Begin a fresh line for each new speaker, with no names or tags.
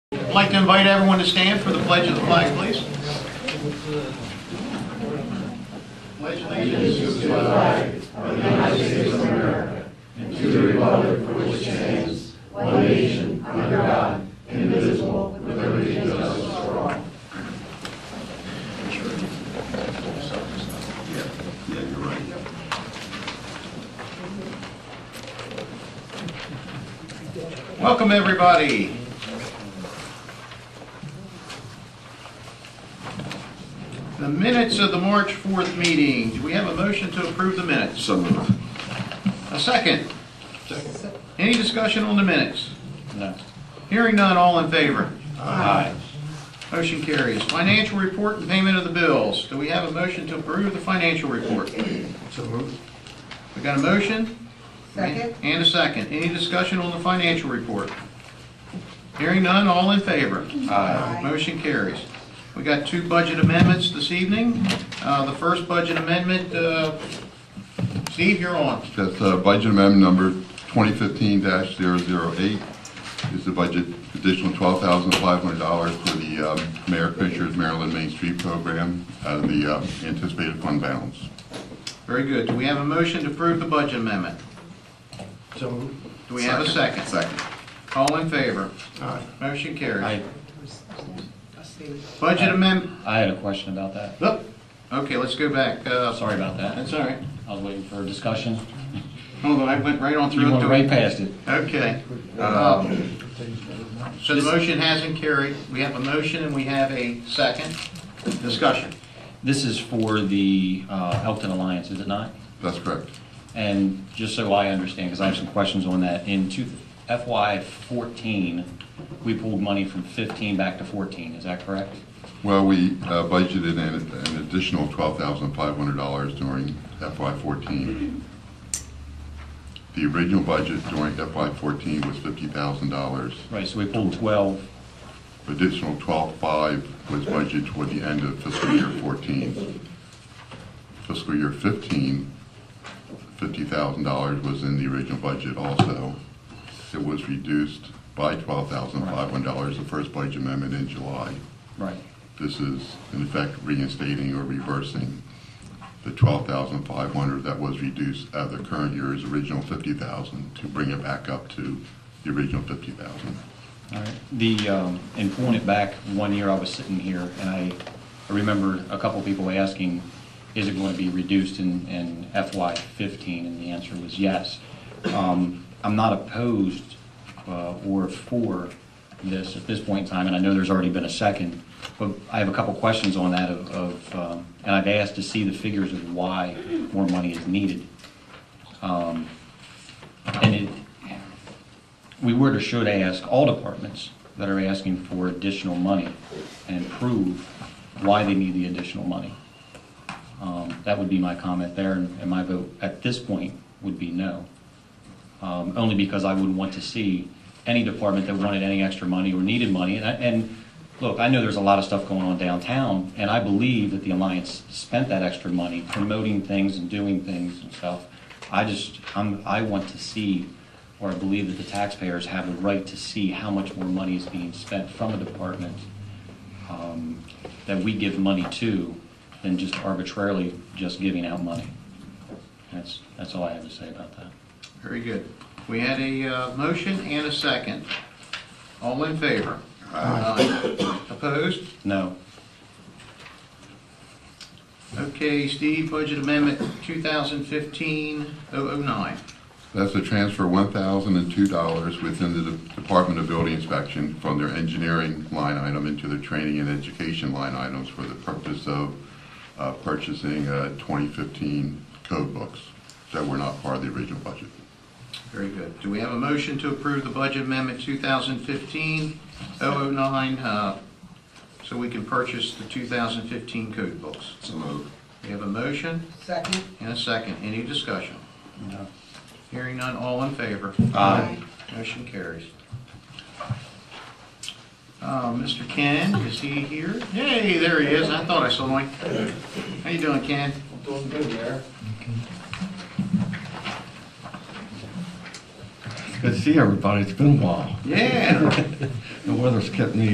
I'd like to invite everyone to stand for the pledge of the flag, please. Pledge allegiance to the flag of the United States of America and to the republic for which it stands, one nation, under God, indivisible, with liberty and justice for all. Yeah, you're right. Welcome, everybody. The minutes of the March 4th meeting, do we have a motion to approve the minutes?
So moved.
A second? Any discussion on the minutes? No. Hearing none, all in favor? Aye. Motion carries. Financial report and payment of the bills. Do we have a motion to approve the financial report? So moved. We got a motion?
Second?
And a second. Any discussion on the financial report? Hearing none, all in favor?
Aye.
Motion carries. We got two budget amendments this evening. Uh, The first budget amendment, uh, Steve, you're on.
That's uh, budget amendment number 2015-008, is the budget additional $12,500 for the um, Mayor Fisher's Maryland Main Street Program out of the um, anticipated fund balance.
Very good. Do we have a motion to approve the budget amendment? Do we have a second?
Second.
All in favor?
Aye.
Motion carries.
I,
Budget amendment,
I had a question about that.
oh, okay, let's go back. Uh,
Sorry about that.
That's all right.
I was waiting for a discussion.
Hold on, I went right on through.
You
it
went
to-
right past it.
Okay. Um, So the motion hasn't carried. We have a motion and we have a second discussion.
This is for the uh, Elkton Alliance, is it not?
That's correct.
And just so I understand, because I have some questions on that, in two- FY '14, we pulled money from '15 back to '14, is that correct?
Well, we uh, budgeted an an additional $12,500 during FY14. The original budget during FY14 was $50,000.
Right, so we pulled 12,
Additional 12.5 was budgeted toward the end of fiscal year 14. Fiscal year 15, $50,000 was in the original budget also. It was reduced by $12,500, the first budget amendment in July.
right,
This is in effect reinstating or reversing the 12,500 that was reduced out of the current year's original 50,000 to bring it back up to the original 50,000.
all right. The, um, and pulling it back, one year I was sitting here, and I I remember a couple people asking, is it going to be reduced in in FY '15? And the answer was yes. Um, I'm not opposed uh, or for this at this point in time, and I know there's already been a second, but I have a couple questions on that of- of, um, and I've asked to see the figures of why more money is needed. Um, And it, we would or should ask all departments that are asking for additional money and prove why they need the additional money. Um, That would be my comment there, and and my vote at this point would be no. Um, Only because I wouldn't want to see any department that wanted any extra money or needed money. And, I- and, look, I know there's a lot of stuff going on downtown, and I believe that the Alliance spent that extra money promoting things and doing things and stuff. I just, I'm, I want to see, or I believe that the taxpayers have the right to see how much more money is being spent from a department um, that we give money to than just arbitrarily just giving out money. That's, that's all I have to say about that.
Very good. We had a uh, motion and a second. All in favor? Aye. Opposed?
No.
Okay, Steve, budget amendment 2015-009.
That's to transfer one thousand and two dollars within the De- Department of Building Inspection from their engineering line item into their training and education line items for the purpose of uh, purchasing twenty fifteen code books that were not part of the original budget.
Very good. Do we have a motion to approve the budget amendment 2015-009, uh, so we can purchase the 2015 code books?
So moved.
We have a motion
Second?
and a second. Any discussion?
No.
Hearing none, all in favor?
Aye.
Motion carries. Uh, Mr. Ken, is he here? Hey, there he is, I thought I saw him. How you doing, Ken?
Doing good there.
Good to see everybody. It's been a while.
Yeah.
The weather's kept me